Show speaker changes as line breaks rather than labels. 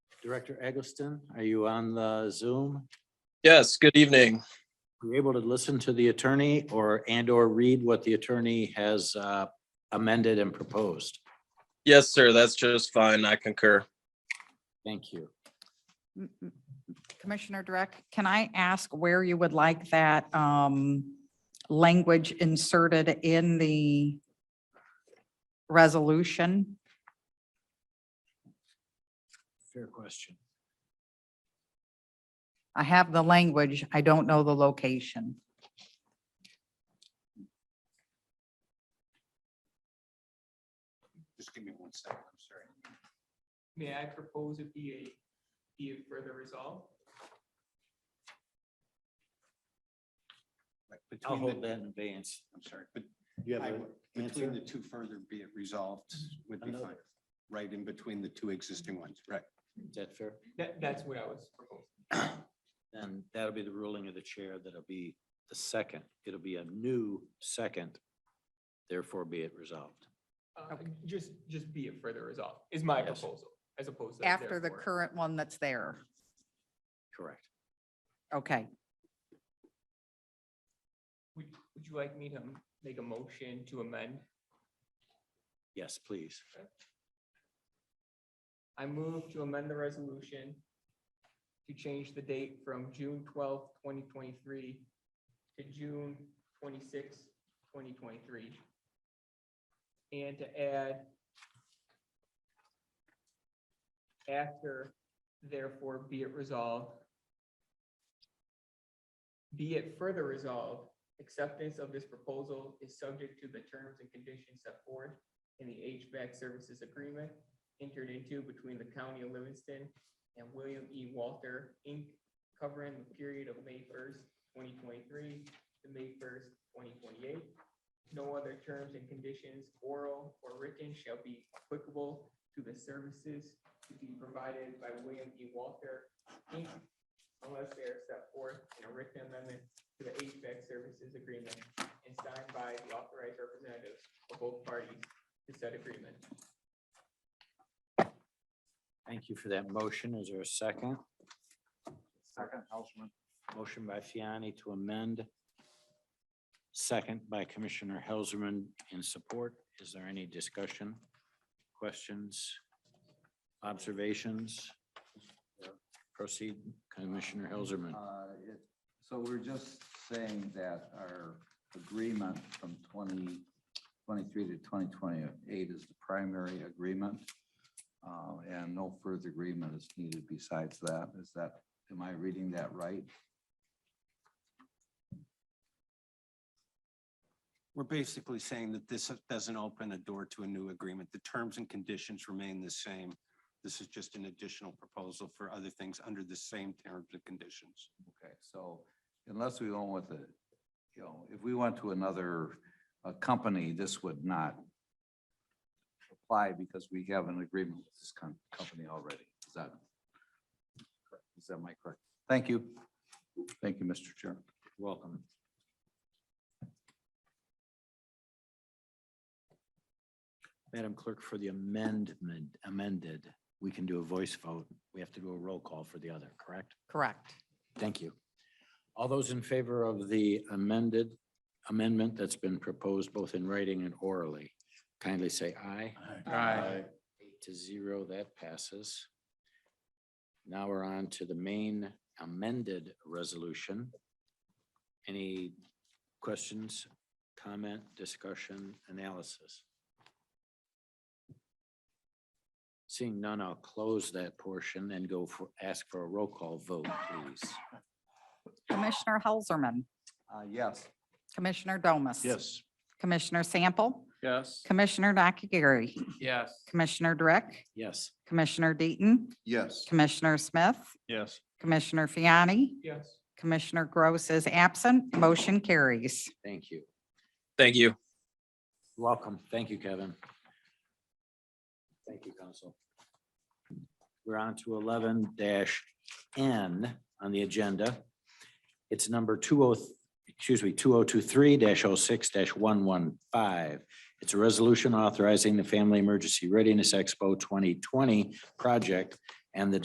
Director Eggleston, are you on the Zoom?
Yes, good evening.
Are you able to listen to the attorney or, and or read what the attorney has uh, amended and proposed?
Yes, sir, that's just fine. I concur.
Thank you.
M- m- Commissioner Direct, can I ask where you would like that um, language inserted in the resolution?
Fair question.
I have the language, I don't know the location.
Just give me one second, I'm sorry.
May I propose it be a, be a further resolve?
Like,
I'll
between
hold
the-
that in advance.
I'm sorry, but
You
I
have
would-
an
between the
answer?
two further be it resolved would be
Another.
fine. Right in between the two existing ones, right?
Is that fair?
That, that's what I was proposing.
Then that'll be the ruling of the chair. That'll be the second. It'll be a new second. Therefore be it resolved.
Uh, Just, just be a further resolve is my
Yes.
proposal as opposed to.
After the
therefore.
current one that's there.
Correct.
Okay,
Would, would you like me to make a motion to amend?
Yes, please.
I move to amend the resolution to change the date from June twelfth, twenty twenty-three to June twenty-sixth, twenty twenty-three. And to add after therefore be it resolved. Be it further resolved, acceptance of this proposal is subject to the terms and conditions set forth in the HVAC services agreement entered into between the county of Livingston and William E. Walter, Inc., covering the period of May first, twenty twenty-three to May first, twenty twenty-eight. No other terms and conditions, oral or written, shall be applicable to the services to be provided by William E. Walter, Inc., unless they are set forth in a written amendment to the HVAC services agreement and signed by the authorized representatives of both parties to said agreement.
Thank you for that motion. Is there a second?
Second, Helserman.
Motion by Fiani to amend. Second by Commissioner Helserman in support. Is there any discussion? Questions? Observations? Proceed, Commissioner Helserman.
Uh, it- So we're just saying that our agreement from twenty twenty-three to twenty twenty-eight is the primary agreement. uh, And no further agreement is needed besides that. Is that, am I reading that right?
We're basically saying that this doesn't open a door to a new agreement. The terms and conditions remain the same. This is just an additional proposal for other things under the same terms and conditions.
Okay, so unless we went with a, you know, if we went to another uh, company, this would not apply because we have an agreement with this com- company already. Is that, is that my correct? Thank you. Thank you, Mr. Chair.
Welcome. Madam Clerk, for the amendment amended, we can do a voice vote. We have to do a roll call for the other, correct?
correct.
Thank you. All those in favor of the amended amendment that's been proposed both in writing and orally, kindly say aye.
Aye.
Eight to zero, that passes. Now we're on to the main amended resolution. Any questions, comment, discussion, analysis? Seeing none, I'll close that portion and go for, ask for a roll call vote, please.
Commissioner Helserman,
Uh, Yes.
Commissioner Domas. Commissioner Sample,
Yes.
Commissioner Nakagiri,
Yes.
Commissioner Direct,
Yes,
Commissioner Deaton,
Yes.
Commissioner Smith,
Yes.
Commissioner Fiani,
Yes.
Commissioner Gross is absent. Motion carries.
thank you.
Thank you.
Welcome. Thank you, Kevin. Thank you, Council. We're on to eleven N on the agenda. It's number two oh, excuse me, two oh two three 6 one one five. It's a resolution authorizing the Family Emergency Readiness Expo twenty twenty project and the